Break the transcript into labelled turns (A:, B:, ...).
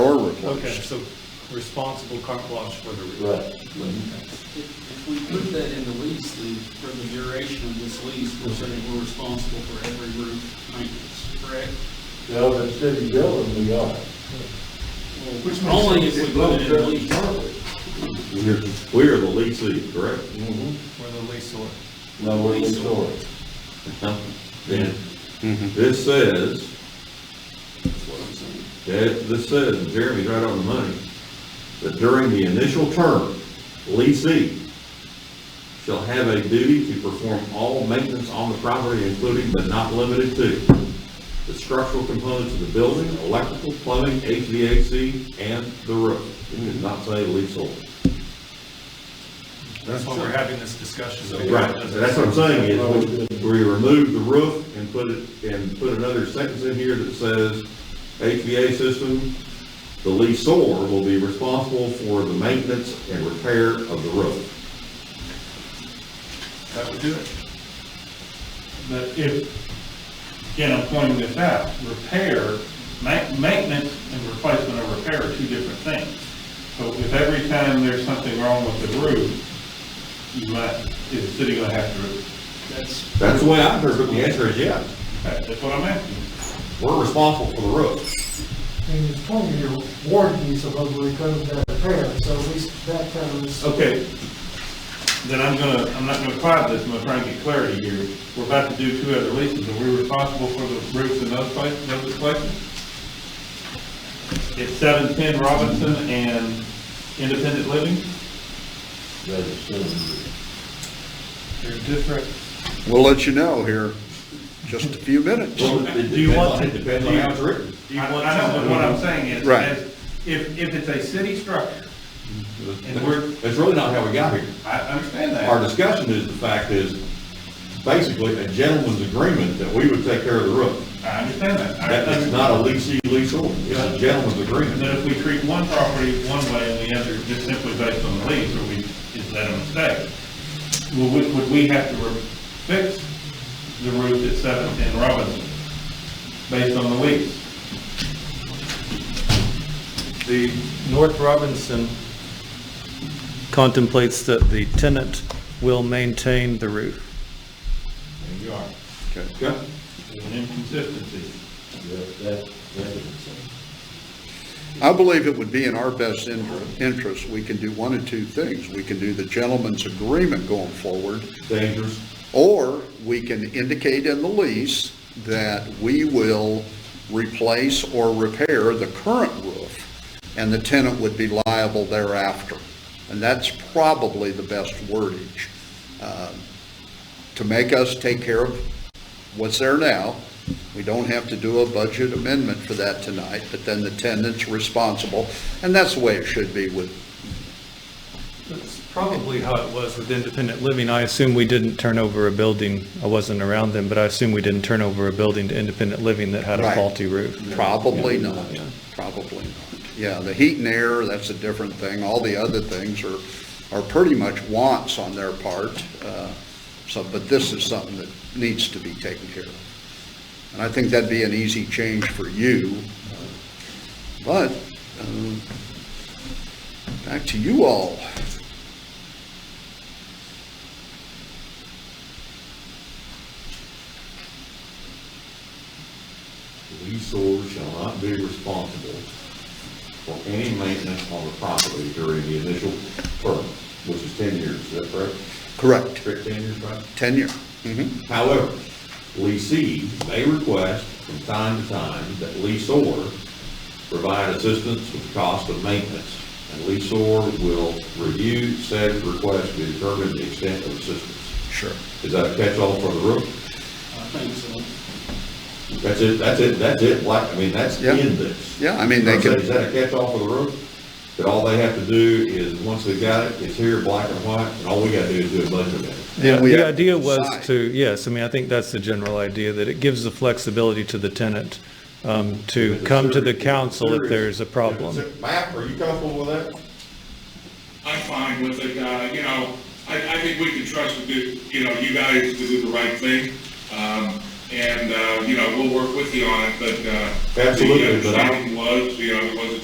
A: cart
B: Okay,
A: wash.
B: so responsible cart wash for the roof.
A: Right.
C: If if we put that in the lease, then for the duration of this lease, we're saying we're responsible for every roof maintenance, correct?
A: Now, the city building, we are.
D: Which makes
C: Only if
D: sense.
C: we put it in the lease.
E: We're, we're the leasing, correct?
A: Mhm.
B: We're the leaseor.
A: No, we're in store.
E: Then, this says,
C: That's what I'm saying.
E: that- this says, and Jeremy's right on the money, that during the initial term, leasee shall have a duty to perform all maintenance on the property, including but not limited to the structural components of the building, electrical, plumbing, HVAC, and the roof. It does not say leasehold.
B: That's why we're having this discussion.
E: Right, that's what I'm saying, is we- we remove the roof and put it, and put another sentence in here that says, HVA system, the leaseor will be responsible for the maintenance and repair of the roof.
B: That would do it.
D: But if, again, I'm pointing this out, repair, ma- maintenance and replacement of repair are two different things. So if every time there's something wrong with the roof, you might, is the city gonna have to,
C: That's,
E: That's the way I interpret it, the answer is yes,
D: that's what I'm asking.
E: we're responsible for the roof.
F: And it's twenty-year warranty supposedly covers that repair, so at least that covers.
D: Okay, then I'm gonna, I'm not gonna apply this, I'm gonna try and get clarity here. We're about to do two other leases, are we responsible for the roofs in those places, those places? It's seven ten Robinson and Independent Living?
A: That is soon.
B: They're different.
G: We'll let you know here, just a few minutes.
E: Well, it
D: Do you want-
E: depends on- It depends on how it's written.
D: I I know, but what I'm saying is,
G: Right.
D: is if, if it's a city structure, and we're-
E: That's really not how we got here.
D: I understand
E: Our
D: that.
E: discussion is, the fact is, basically, a gentleman's agreement that we would take care of the roof.
D: I understand that. I
E: That is
D: understand-
E: not a leasing leasehold, it's a gentleman's
D: And
E: agreement.
D: then if we treat one property one way and the other just simply based on the lease, or we, is that a mistake? Well, would, would we have to re- fix the roof at seven ten Robinson based on the lease?
B: The North Robinson contemplates that the tenant will maintain the roof.
D: There you are.
E: Okay?
D: There's an inconsistency.
A: That, that, that is soon.
G: I believe it would be in our best in- interest, we can do one of two things. We can do the gentleman's agreement going forward,
E: Dangerous.
G: or we can indicate in the lease that we will replace or repair the current roof, and the tenant would be liable thereafter. And that's probably the best wordage, um, to make us take care of what's there now. We don't have to do a budget amendment for that tonight, but then the tenant's responsible, and that's the way it should be with
B: That's probably how it was with independent living. I assume we didn't turn over a building, I wasn't around then, but I assume we didn't turn over a building to independent living that had a
G: Right.
B: faulty roof.
G: Probably not, probably not. Yeah, the heat and air, that's a different thing. All the other things are, are pretty much wants on their part. uh, So, but this is something that needs to be taken care of. And I think that'd be an easy change for you. But, um, back to you all.
E: The Leaseor shall not be responsible for any maintenance on the property during the initial term, which is ten years, is that correct?
G: Correct,
E: Correct, ten years, right?
G: tenure. Mhm.
E: However, leasee may request from time to time that leaseor provide assistance with the cost of maintenance, and leaseor will review said request to determine the extent of assistance.
G: Sure.
E: Is that a catch-all for the roof?
C: I think so.
E: That's it, that's it, that's it, like, I mean, that's
G: Yeah.
E: in this.
G: Yeah, I mean, they
E: Is that- Is
G: could,
E: that a catch-all for the roof? That all they have to do is, once they've got it, it's here, black and white, and all we gotta do is do a budget amendment.
B: Yeah,
G: we
B: the
G: have to
B: idea was
G: decide.
B: to, yes, I mean, I think that's the general idea, that it gives the flexibility to the tenant um, to come to the council if there's a problem.
E: Matt, are you comfortable with that?
H: I'm fine with it, uh, you know, I, I think we can trust to do, you know, you guys to do the right thing. Um, and, uh, you know, we'll work with you on it, but, uh.
E: Absolutely,
H: The
E: but I-
H: understanding was, you know, it was a